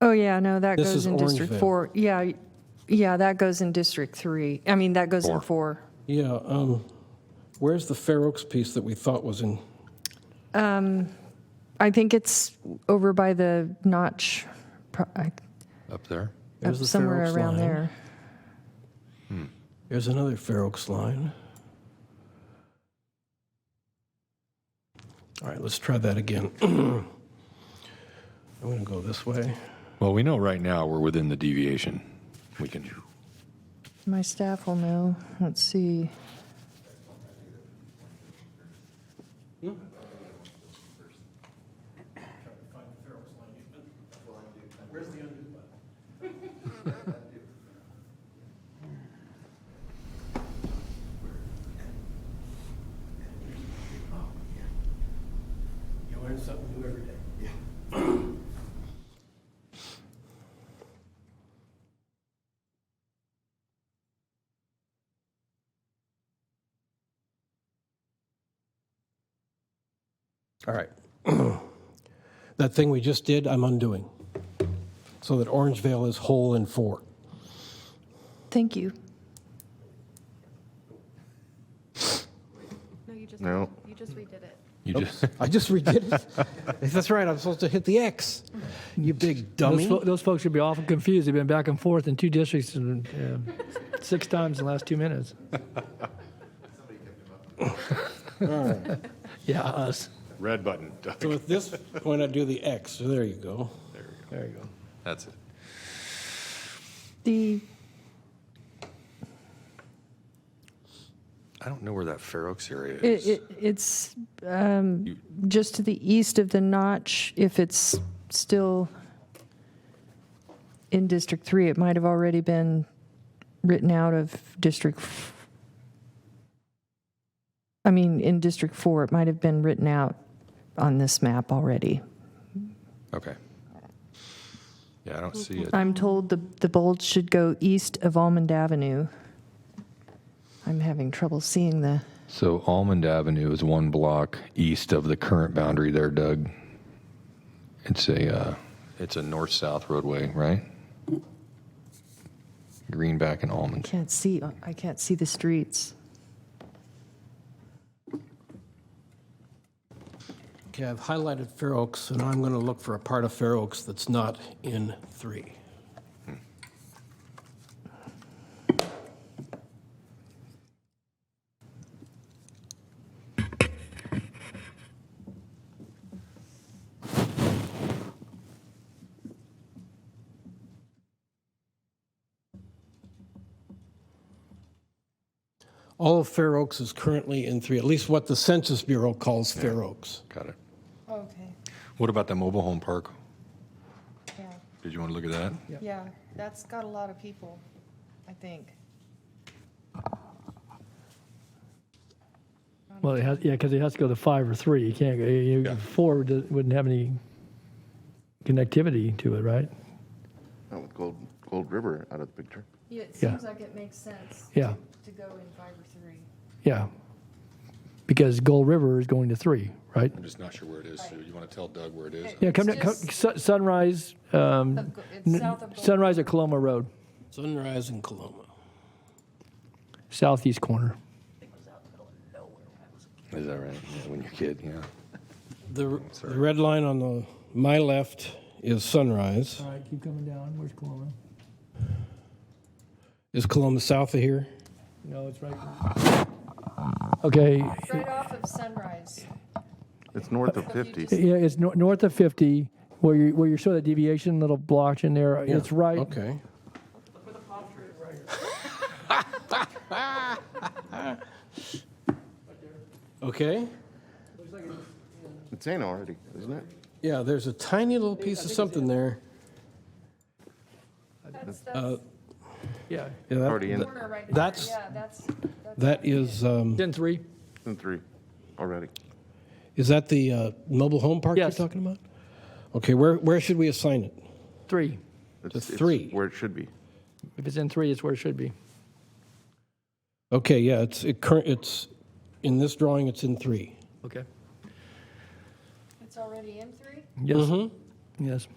Oh, yeah, no, that This goes is in District Orangeville. 4. Yeah, yeah, that goes in District 3. I mean, that goes in 4. Yeah, um, where's the Fair Oaks piece that we thought was in? Um, I think it's over by the notch, pro- I- up there. There's the Fair somewhere Oaks around line. there. There's another Fair Oaks line. All right, let's try that again. I'm going to go this way. Well, we know right now we're within the deviation. We can, My staff will know. Let's see. You learn something new every day. All right. That thing we just did, I'm undoing. So that Orangevale is whole in four. Thank you. No, you just, No. you just redid it. you just, I just redid it. That's right, I'm supposed to hit the X. You big dummy. Those, fo- those folks should be awful confused. They've been back and forth in two districts and, uh, six times in the last two minutes. yeah, us. red button. So at this point, I do the X. So there you go. There you go. That's it. The, I don't know where that Fair Oaks area it- is. it- it's um, just to the east of the notch, if it's still in District 3, it might have already been written out of District, f- I mean, in District 4, it might have been written out on this map already. Okay. Yeah, I don't see it. I'm told the, the bold should go east of Almond Avenue. I'm having trouble seeing the, So Almond Avenue is one block east of the current boundary there, Doug. It's a, uh, it's a north-south roadway, right? Greenback and Almond. can't see, I can't see the streets. Okay, I've highlighted Fair Oaks, and I'm going to look for a part of Fair Oaks that's not in three. All of Fair Oaks is currently in three, at least what the Census Bureau calls Fair Oaks. Got it. Okay, What about the mobile home park? yeah, Did you want to look at that? yeah, that's got a lot of people, I think. Well, it has, yeah, because it has to go to five or three. You can't, go- you, Yeah. four do- wouldn't have any connectivity to it, right? Not with Gold, Gold River out of the picture. Yeah, it Yeah. seems like it makes sense Yeah, to go in five or three. yeah. Because Gold River is going to three, right? I'm just not sure where it is. So you want to tell Doug where it is? Yeah, come down, come, Sun- Sunrise, um, n- Sunrise at Coloma Road, Sunrise in Coloma. southeast corner. Is that right? Yeah, when you're a kid, yeah. The, the red line on the, my left is Sunrise. All right, keep coming down. Where's Coloma? Is Coloma south of here? No, it's right. Okay, Right off of Sunrise. It's north of So if you 50. just- yeah, it's nor- north of 50, where you, where you saw that deviation, little blotch in there, it's right, Okay. Okay, It's in already, isn't it? yeah, there's a tiny little piece of something there. That's, that's yeah, Yeah, that- Already in, that- corner right there, that's- yeah, that's. That is, um, 10-3. in three, already. is that the uh, mobile home park you're Yes. talking about? Okay, where, where should we assign it? Three. It's- It's it's three. Where it should be. If it's in three, it's where it should be. Okay, yeah, it's, it current, it's, in this drawing, it's in three. Okay. It's already in three? Mm-hmm. Yes. Yes.